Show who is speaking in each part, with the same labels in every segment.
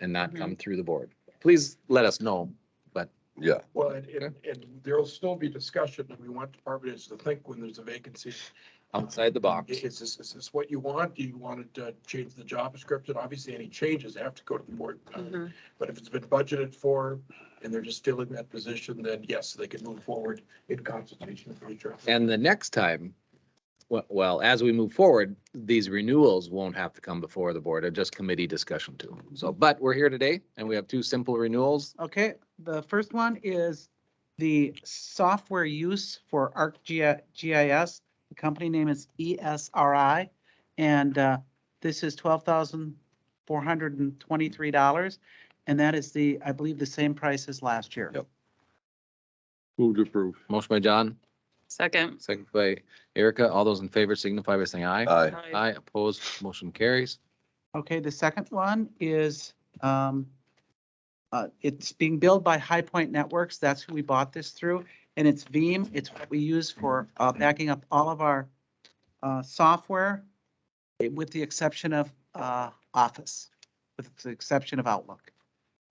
Speaker 1: and not
Speaker 2: Mhm.
Speaker 1: come through the board. Please let us know.
Speaker 3: Yeah,
Speaker 4: Well, and, and, and there'll still be discussion, and we want department heads to think when there's a vacancy.
Speaker 1: Outside the box.
Speaker 4: Is this, is this what you want? Do you want to uh, change the job description? Obviously, any changes have to go to the board. uh,
Speaker 2: Mhm.
Speaker 4: But if it's been budgeted for and they're just filling that position, then yes, they can move forward in consultation with each other.
Speaker 1: And the next time, we- well, as we move forward, these renewals won't have to come before the board, or just committee discussion too. So, but we're here today and we have two simple renewals.
Speaker 5: Okay, the first one is the software use for ArcGIS. The company name is E ESRI, and uh, this is twelve thousand four hundred and twenty-three dollars. And that is the, I believe, the same price as last year.
Speaker 3: Yep. move to approve.
Speaker 1: Motion by John,
Speaker 2: Second.
Speaker 1: second by Erica. All those in favor signify by saying aye.
Speaker 3: Aye.
Speaker 1: Aye, opposed, motion carries.
Speaker 5: Okay, the second one is, um, uh, it's being billed by High Point Networks. That's who we bought this through. And it's Veeam. It's what we use for, uh, backing up all of our, uh, software eh, with the exception of, uh, Office, with the exception of Outlook.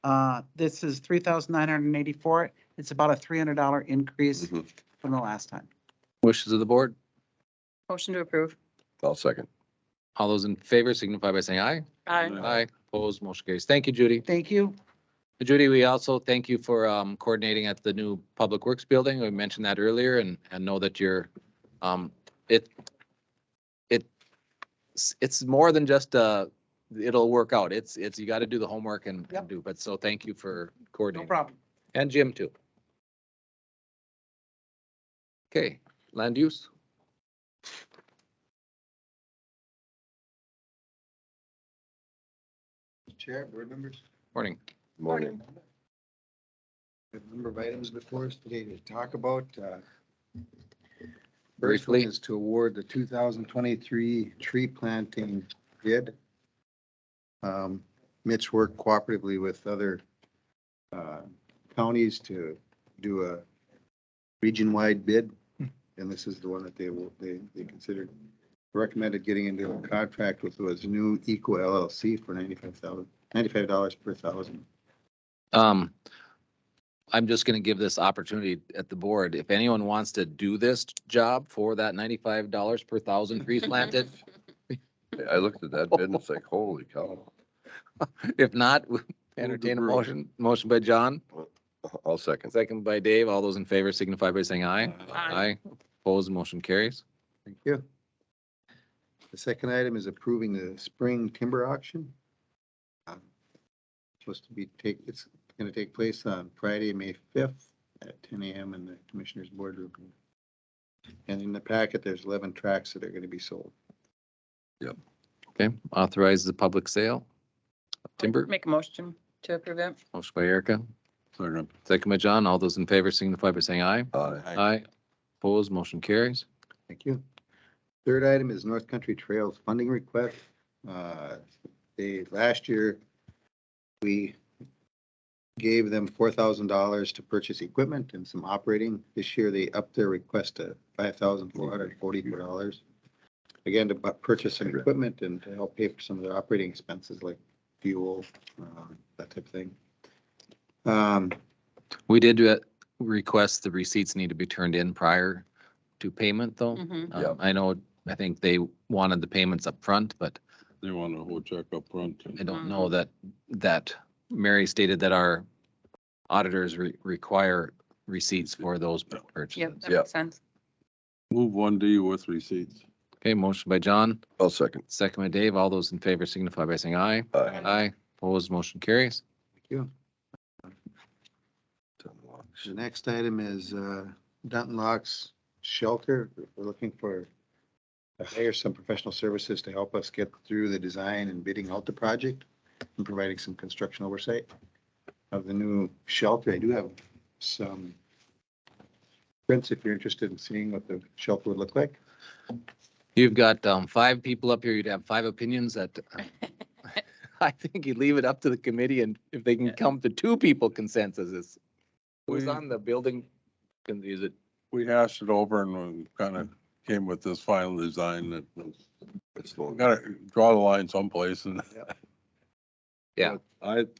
Speaker 5: Uh, this is three thousand nine hundred and eighty-four. It's about a three hundred dollar increase
Speaker 3: Mhm.
Speaker 5: from the last time.
Speaker 1: Wishes of the board.
Speaker 2: Motion to approve.
Speaker 3: I'll second.
Speaker 1: All those in favor signify by saying aye.
Speaker 2: Aye.
Speaker 1: Aye, opposed, motion carries. Thank you, Judy.
Speaker 5: Thank you.
Speaker 1: Judy, we also thank you for um, coordinating at the new Public Works Building. We mentioned that earlier and, and know that you're, um, it, it, it's more than just a, it'll work out. It's, it's, you got to do the homework and and
Speaker 5: Yep.
Speaker 1: do, but so thank you for
Speaker 5: No
Speaker 1: coordinating.
Speaker 5: problem.
Speaker 1: And Jim too. Okay, land use.
Speaker 6: Chair, board members,
Speaker 1: Morning.
Speaker 3: Morning.
Speaker 6: we have a number of items before us today to talk about. uh, First one
Speaker 1: Briefly.
Speaker 6: is to award the two thousand twenty-three tree planting bid. Um, Mitch worked cooperatively with other uh, counties to do a region-wide bid, and this is the one that they will, they, they considered. Recommended getting into a contract with was new Eco LLC for ninety-five thousand, ninety-five dollars per thousand.
Speaker 1: Um, I'm just gonna give this opportunity at the board. If anyone wants to do this job for that ninety-five dollars per thousand trees planted,
Speaker 3: I looked at that bid and it's like, holy cow.
Speaker 1: if not, we entertain a
Speaker 3: approve.
Speaker 1: motion, motion by John,
Speaker 3: I'll second.
Speaker 1: second by Dave. All those in favor signify by saying aye.
Speaker 2: Aye.
Speaker 1: Opposed, motion carries.
Speaker 6: Thank you. The second item is approving the spring timber auction. Um, Supposed to be take, it's gonna take place on Friday, May fifth at ten AM in the Commissioners Boardroom. And in the packet, there's eleven tracks that are gonna be sold.
Speaker 1: Okay, authorize the public sale. of Timber,
Speaker 2: Make a motion to approve it.
Speaker 1: motion by Erica,
Speaker 3: Second.
Speaker 1: second by John. All those in favor signify by saying aye.
Speaker 3: Aye.
Speaker 1: Aye. Opposed, motion carries.
Speaker 6: Thank you. Third item is North Country Trails funding request. Uh, They, last year, we gave them four thousand dollars to purchase equipment and some operating. This year, they upped their request to five thousand four hundred forty-four dollars. Again, to bu- purchase some equipment and to help pay for some of their operating expenses like fuel, uh, that type of thing. Um,
Speaker 1: We did uh, request the receipts need to be turned in prior to payment, though.
Speaker 2: Mhm.
Speaker 1: Um,
Speaker 3: Yep.
Speaker 1: I know, I think they wanted the payments up front, but
Speaker 7: They want a whole check up front.
Speaker 1: I don't know
Speaker 3: Mm-hmm.
Speaker 1: that, that Mary stated that our auditors re- require receipts for those
Speaker 2: Yep,
Speaker 1: purchases.
Speaker 2: that
Speaker 3: Yep.
Speaker 2: makes sense.
Speaker 7: Move one D with receipts.
Speaker 1: Okay, motion by John,
Speaker 3: I'll second.
Speaker 1: second by Dave. All those in favor signify by saying aye.
Speaker 3: Aye.
Speaker 1: Aye, opposed, motion carries.
Speaker 6: The next item is uh, Dunton Locks Shelter. We're looking for, to hire some professional services to help us get through the design and bidding out the project and providing some construction oversight of the new shelter. I do have some prints if you're interested in seeing what the shelter would look like.
Speaker 1: You've got um, five people up here. You'd have five opinions that uh, I think you leave it up to the committee and if they can come to two people consensus is. Who's
Speaker 7: We-
Speaker 1: on the building? Can use it.
Speaker 7: We hashed it over and we kind of came with this final design that was,
Speaker 3: It's long.
Speaker 7: we gotta draw the line someplace and
Speaker 1: Yeah.
Speaker 7: I,